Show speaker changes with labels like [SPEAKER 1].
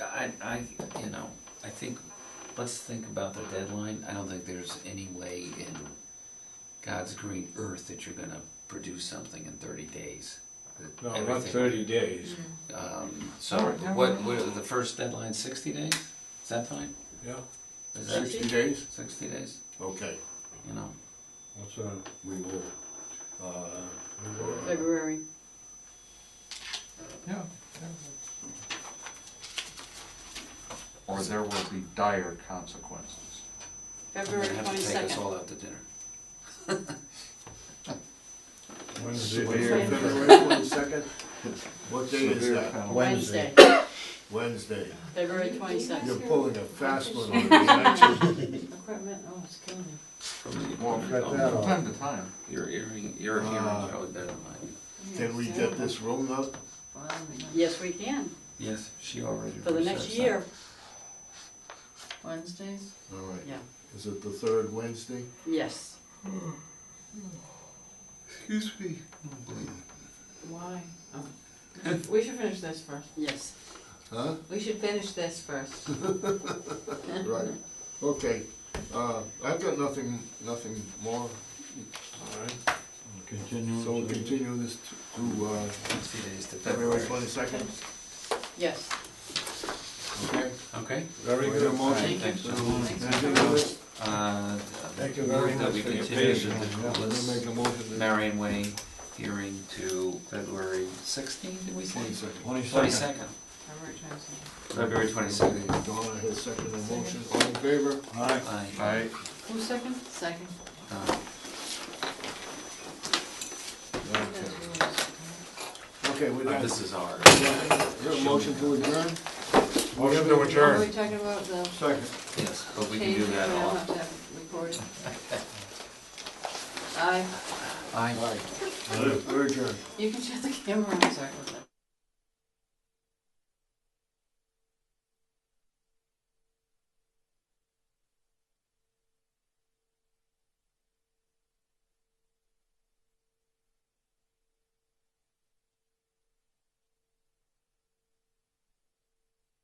[SPEAKER 1] I, I, you know, I think, let's think about the deadline. I don't think there's any way in God's green earth that you're gonna produce something in thirty days. That
[SPEAKER 2] No, not
[SPEAKER 1] everything-
[SPEAKER 2] thirty days,
[SPEAKER 1] Um, so
[SPEAKER 2] All right.
[SPEAKER 1] what, what, are the first deadline, sixty days? Is that fine?
[SPEAKER 2] yeah,
[SPEAKER 1] Is that
[SPEAKER 2] sixty days,
[SPEAKER 1] sixty days?
[SPEAKER 3] Okay,
[SPEAKER 1] You know,
[SPEAKER 2] what's that?
[SPEAKER 3] we will, uh,
[SPEAKER 4] February.
[SPEAKER 5] Yeah.
[SPEAKER 6] or there will be dire consequences.
[SPEAKER 1] we're
[SPEAKER 4] February
[SPEAKER 1] gonna have to take us
[SPEAKER 4] 22nd.
[SPEAKER 1] all out to dinner.
[SPEAKER 2] When is it?
[SPEAKER 6] Severe-
[SPEAKER 3] February twenty-second? What day is
[SPEAKER 6] severe
[SPEAKER 3] that?
[SPEAKER 6] penalties.
[SPEAKER 4] Wednesday,
[SPEAKER 3] Wednesday.
[SPEAKER 4] February
[SPEAKER 3] You're
[SPEAKER 4] 22nd.
[SPEAKER 3] pulling a fast one on me, aren't you?
[SPEAKER 4] Equipment, oh, it's killing me.
[SPEAKER 6] Well,
[SPEAKER 2] Cut that
[SPEAKER 6] from
[SPEAKER 2] off.
[SPEAKER 6] time to time,
[SPEAKER 1] Your hearing, your hearing
[SPEAKER 3] Uh,
[SPEAKER 1] probably better than mine.
[SPEAKER 3] Can we get this room up?
[SPEAKER 4] Yes, we can,
[SPEAKER 1] Yes, she already.
[SPEAKER 4] for the next
[SPEAKER 1] researched that.
[SPEAKER 4] year,
[SPEAKER 7] Wednesdays?
[SPEAKER 3] All right.
[SPEAKER 4] yeah,
[SPEAKER 3] Is it the third Wednesday?
[SPEAKER 4] yes.
[SPEAKER 3] Excuse me.
[SPEAKER 7] Why? Oh. We should- We should finish this first.
[SPEAKER 4] Yes.
[SPEAKER 3] Huh?
[SPEAKER 7] We should finish this first.
[SPEAKER 3] Right, okay. Uh, I've got nothing, nothing more,
[SPEAKER 2] All right, continue.
[SPEAKER 3] so we'll continue this t- to, uh,
[SPEAKER 1] Sixty days to
[SPEAKER 3] February
[SPEAKER 1] February.
[SPEAKER 3] twenty-second,
[SPEAKER 4] Yes.
[SPEAKER 3] okay?
[SPEAKER 1] Okay,
[SPEAKER 2] Very
[SPEAKER 3] Do I hear a
[SPEAKER 2] good.
[SPEAKER 3] motion?
[SPEAKER 1] thank you.
[SPEAKER 3] Thanks.
[SPEAKER 1] Uh,
[SPEAKER 2] Thank you very
[SPEAKER 1] move that
[SPEAKER 2] much
[SPEAKER 1] we
[SPEAKER 2] for your
[SPEAKER 1] continue
[SPEAKER 2] patience.
[SPEAKER 1] the
[SPEAKER 2] Yeah, we'll
[SPEAKER 1] Nicholas
[SPEAKER 2] make a motion.
[SPEAKER 1] Marion Way hearing to February sixteenth, did we say?
[SPEAKER 3] Twenty-second.
[SPEAKER 1] Twenty-second,
[SPEAKER 7] February 22nd.
[SPEAKER 1] February twenty-second.
[SPEAKER 3] Donna has seconded the motion, all in favor?
[SPEAKER 2] All right,
[SPEAKER 1] I,
[SPEAKER 6] I,
[SPEAKER 4] Who second?
[SPEAKER 7] Second.
[SPEAKER 1] uh,
[SPEAKER 3] Okay. Okay, we got,
[SPEAKER 1] this is ours. Uh,
[SPEAKER 3] we got a motion to adjourn?
[SPEAKER 2] motion to
[SPEAKER 7] Are
[SPEAKER 2] adjourn.
[SPEAKER 7] we talking about the
[SPEAKER 3] Second.
[SPEAKER 1] Yes, but we can
[SPEAKER 7] change?
[SPEAKER 1] do that
[SPEAKER 7] We don't
[SPEAKER 1] all.
[SPEAKER 7] have to have it recorded. I,
[SPEAKER 1] Aye.
[SPEAKER 3] All right, we're adjourned.
[SPEAKER 7] you can shut the camera on, sorry about that.